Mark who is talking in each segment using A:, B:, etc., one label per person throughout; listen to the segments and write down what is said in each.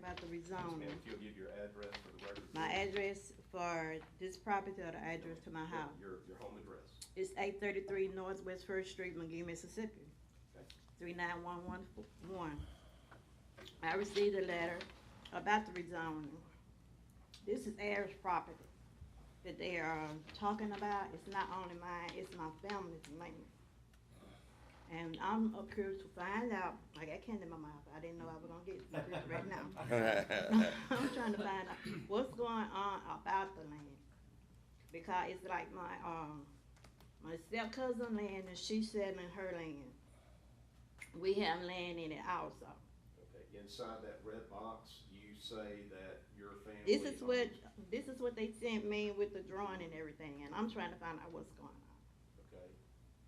A: and
B: Yes, ma'am,
A: zoning.
B: if you'll give your address for the record.
A: My
B: please.
A: address uh-huh. for this property or the address to my
B: Your-
A: house?
B: Your, your home address.
A: It's eight thirty-three Northwest First Street, McGee, Mississippi.
B: Okay.
A: Three nine one one one. I received a letter about the rezoning. This is Eric's property that they are um, talking about. It's not only mine, it's my family's mainly. And I'm up here to find out, like I can't in my mouth, I didn't know I was gonna get this right now. I'm trying to find out what's going on about the land. Because it's like my, um, my step cousin land and she's selling her land. We have land in it also.
B: Okay, inside that red box, you say that your family.
A: This is what,
B: owns-
A: this is what they sent me with the drawing and everything, and I'm trying to find out what's going on.
B: Okay,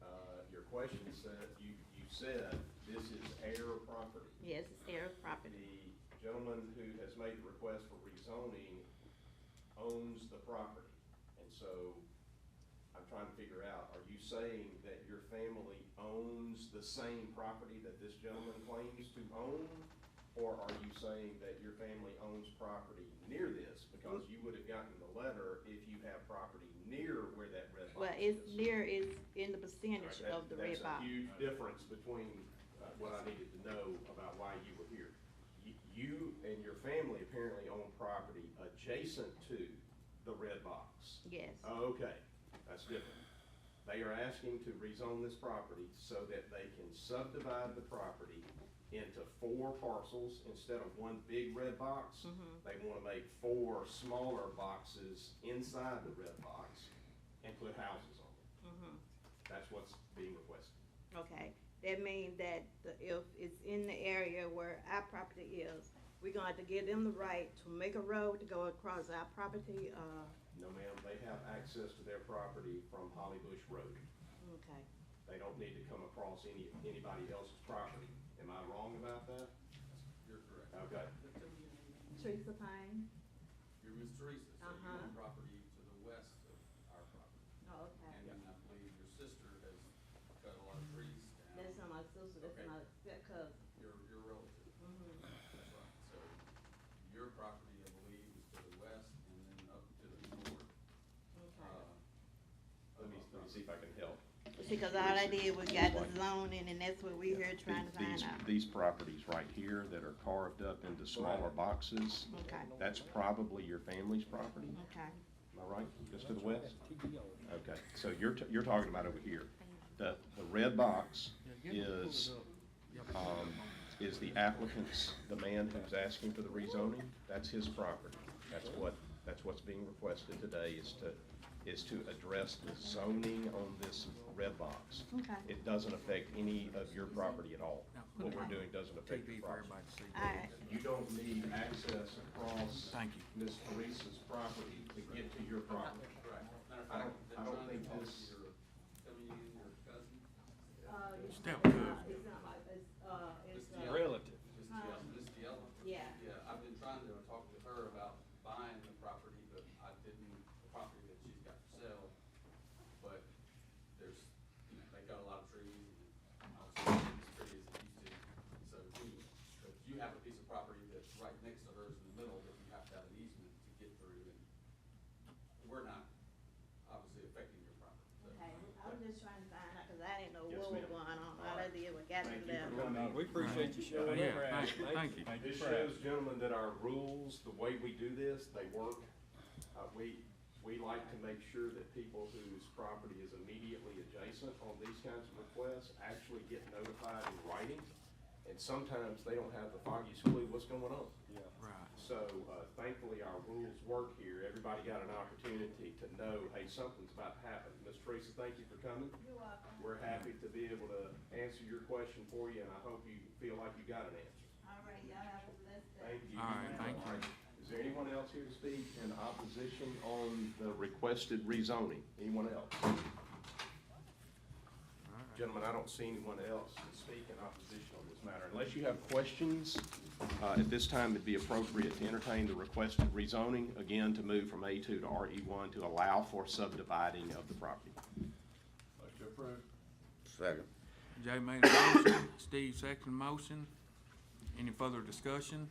B: uh, your question said, you, you said this is heir property.
A: Yes, it's their property.
B: The gentleman who has made the request for rezoning owns the property. And so I'm trying to figure out, are you saying that your family owns the same property that this gentleman claims to own? Or are you saying that your family owns property near this? Because you would have gotten the letter if you have property near where that red box
A: Well,
B: is.
A: it's near, it's in the percentage
B: Right, that-
A: of the red box.
B: That's a huge difference between uh, what I needed to know about why you were here. Y- You and your family apparently own property adjacent to the red box.
A: Yes,
B: Oh, Okay, that's different. They are asking to rezone this property so that they can subdivide the property into four parcels instead of one big red box.
A: Mm-hmm.
B: They want to make four smaller boxes inside the red box and put houses on it.
A: Mm-hmm.
B: That's what's being requested.
A: okay. That means that the- if it's in the area where our property is, we're gonna have to give them the right to make a road to go across our property, uh,
B: No, ma'am, they have access to their property from Holly Bush Road.
A: okay.
B: They don't need to come across any, anybody else's property. Am I wrong about that?
C: You're correct.
B: Okay,
A: Teresa Payne?
C: You're Miss Teresa, so you
A: Uh-huh.
C: own property to the west of our property.
A: Oh,
C: And
A: okay.
C: then I believe your sister has cut a lot of trees
A: That's
C: down.
A: not my sister, that's
C: Okay.
A: my step-cousin.
C: Your, your relative,
A: Mhm.
C: that's right. So your property, I believe, is to the west and then up to the north.
A: Okay.
C: uh,
B: let me, let me see if I can help.
A: See, cause all I did was got the zoning and that's what we here trying to
D: These-
A: find out.
D: These properties right here that are carved up into smaller boxes,
A: Okay,
D: that's probably your family's property,
A: okay.
D: am I right? Just to the west? Okay, so you're, t- you're talking about over here. The, the red box is, um, is the applicant's, the man who's asking for the rezoning, that's his property. That's what, that's what's being requested today is to, is to address the zoning on this red box.
A: Okay.
D: It doesn't affect any of your property at all. What we're doing doesn't affect your
E: TV for
D: property.
E: everybody to see.
A: Alright,
B: You don't need access across.
E: Thank you.
B: Miss Teresa's property to get to your property.
C: Right. Matter of
B: I don't-
C: fact, they're
B: I don't
C: trying to
B: think
C: talk to
B: this-
C: your- Coming in, your cousin,
E: Step
A: Uh, It's
E: cousin.
A: not like, it's, uh,
C: Miss
A: it's, uh,
C: Diallo,
E: Relative.
C: Miss
A: Huh.
C: Diallo, Miss Diallo.
A: yeah.
C: Yeah, I've been trying to talk to her about buying the property, but I didn't, the property that she's got for sale. But there's, you know, they got a lot of trees and obviously it's not as pretty as it used to. So anyway, but you have a piece of property that's right next to hers in the middle that you have to have an easement to get through and we're not obviously affecting your property. so-
A: Okay, I was just trying to find out, cause I didn't know
B: Yes,
A: what was
B: ma'am.
A: going on. All I did was got
B: Thank
A: the
B: you for
A: letter.
B: coming.
F: We appreciate you showing
E: Yeah,
F: up, Brad.
E: thank you, thank you.
B: This shows, gentlemen, that our rules, the way we do this, they work. Uh, we, we like to make sure that people whose property is immediately adjacent on these kinds of requests actually get notified in writing. And sometimes they don't have the foggiest clue what's going on.
E: Right.
B: So uh, thankfully, our rules work here. Everybody got an opportunity to know, hey, something's about to happen. Ms. Teresa, thank you for coming.
A: You're welcome.
B: We're happy to be able to answer your question for you, and I hope you feel like you got an answer.
A: Alright, y'all have a blessed day.
B: Thank you.
E: All right, thank you.
B: All right. Is there anyone else here to speak in opposition on the requested rezoning? Anyone else? Gentlemen, I don't see anyone else to speak in opposition on this matter.
D: Unless you have questions, uh, at this time, it'd be appropriate to entertain the requested rezoning, again, to move from A2 to
B: E
D: RE1 to allow for subdividing of the property.
G: Second.
E: Jay made a motion, Steve seconded the motion. Any further discussion?